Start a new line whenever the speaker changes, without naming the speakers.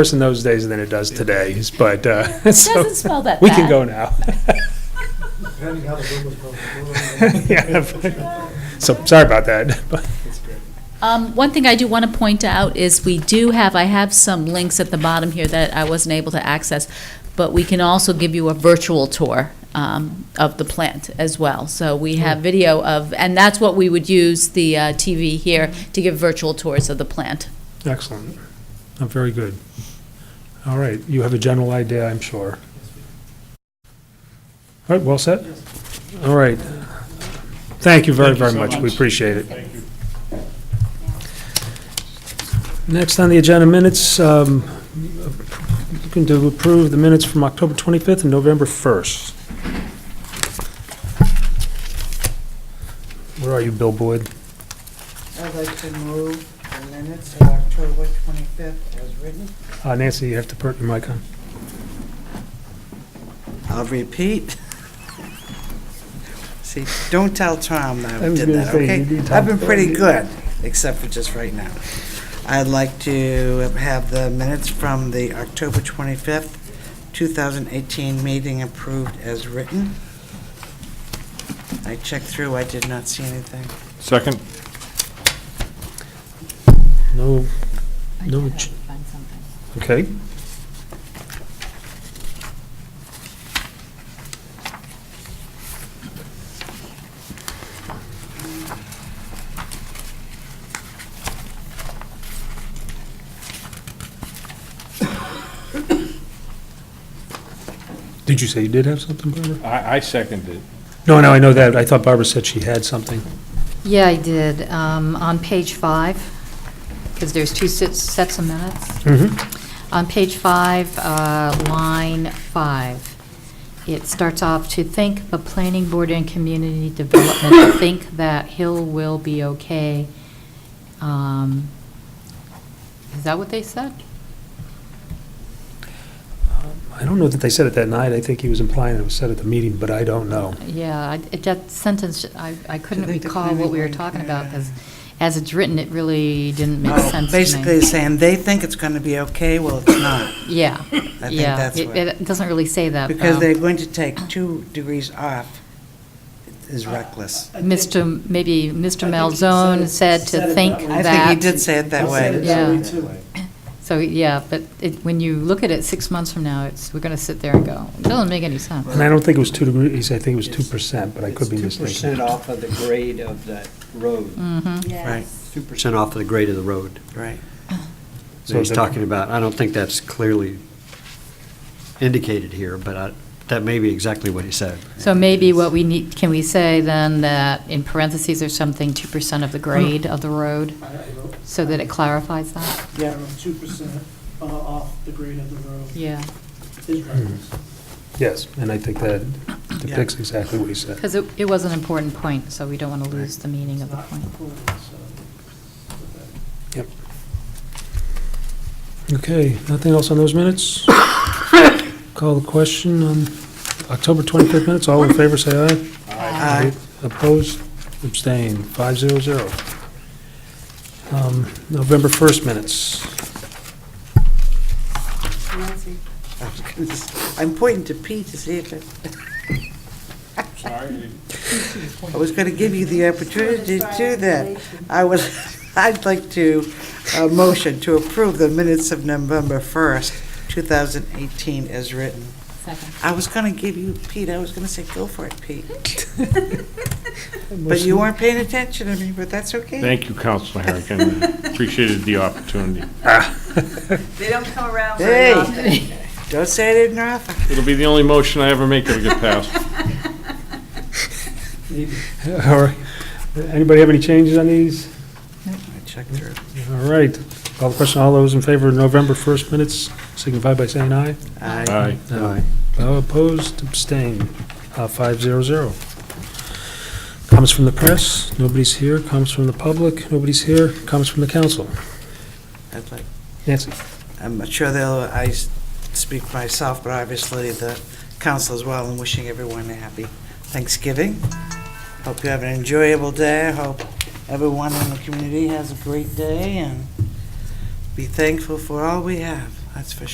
worse in those days than it does today, but, uh, so.
Doesn't spell that
We can
bad.
go now.
Depending how the room was built.
Yeah. So, sorry about that. but-
It's great.
Um, one thing I do want to point out is we do have, I have some links at the bottom here that I wasn't able to access, but we can also give you a virtual tour um, of the plant as well. So we have video of, and that's what we would use the uh, TV here to give virtual tours of the plant.
Excellent. Uh, Very good. All right, you have a general idea, I'm sure. All right, well said? All right. Thank you very, very much. We appreciate it. Thank you. Next on the agenda, minutes, um, looking to approve the minutes from October 25th and November 1st. Where are you, Bill Boyd?
I'd like to move the minutes of October 25th as written.
Uh, Nancy, you have to put your mic on.
I'll repeat. See, don't tell Tom that
I
I
was
did
gonna
that,
say,
okay?
you need Tom
I've been
to-
pretty good, except for just right now. I'd like to have the minutes from the October 25th, 2018 meeting approved as written. I checked through, I did not see anything.
Second?
No, no, ch- okay. Did you say you did have something, Barbara?
I, I seconded it.
No, no, I know that. I thought Barbara said she had something.
Yeah, I did. Um, On page five, because there's two sets sets of minutes.
Mm-hmm.
On page five, uh, line five, it starts off, "To think the planning board and community development think that Hill will be okay." Um, Is that what they said?
I don't know that they said it that night. I think he was implying it was said at the meeting, but I don't know.
Yeah, I- it- that sentence, I I couldn't
think the
recall what we were
planning board-
talking about,
yeah.
because as it's written, it really didn't make sense to me.
Basically saying they think it's going to be okay, well, it's not.
Yeah,
I think
yeah.
that's
It
what.
it doesn't really say that, um, though.
Because they're going to take two degrees off is reckless.
Mr., maybe Mr.
I think he
Malzone
said-
said
said
to
it
think
that way.
I think he did
that.
say it that way.
Yeah. So, yeah, but it, when you look at it six months from now, it's, we're going to sit there and go, it doesn't make any sense.
And I don't think it was two degrees, I think it was two
It's-
percent, but I could be
It's 2%
mistaken.
off of the grade of that road,
Mhm.
Right,
2% off of the grade of the road.
right.
So he's
the-
talking about, I don't think that's clearly indicated here, but I- that may be exactly what he said.
So maybe what we need, can we say then that in parentheses or something, 2% of the
Uh-huh.
grade of the road, so that it clarifies that?
Yeah, two percent uh, off the grade of the road
Yeah,
is reckless.
Yes, and I think that depicts exactly what he said.
because it, it was an important point, so we don't want to lose the meaning of the point.
Okay, nothing else on those minutes? Call the question on October 25th minutes, all in favor, say aye.
Aye.
Opposed, abstained, five zero zero. Um, November 1st minutes.
I was gonna s- I'm pointing to Pete to see if, it-
Sorry.
I was going to give you the opportunity to do that. I was, I'd like to, uh motion to approve the minutes of November 1st, 2018 as written.
Second.
I was going to give you, Pete, I was going to say, go for it, Pete. But you weren't paying attention to me, but that's okay.
Thank you, Counselor Harrigan. Appreciated the opportunity.
They don't come around very
Hey.
often.
Don't say I didn't offer.
It'll be the only motion I ever make that'll get passed.
All right. Anybody have any changes on these?
I checked through.
All right, call the question, all those in favor of November 1st minutes signify by saying aye.
Aye.
Aye. Opposed, abstained, Uh, five zero zero. Comments from the press, nobody's here. Comments from the public, nobody's here. Comments from the council.
I'd like,
Nancy?
I'm not sure they'll, I s- speak for myself, but obviously the council as well, and wishing everyone a happy Thanksgiving. Hope you have an enjoyable day. I Hope everyone in the community has a great day, and be thankful for all we have. That's for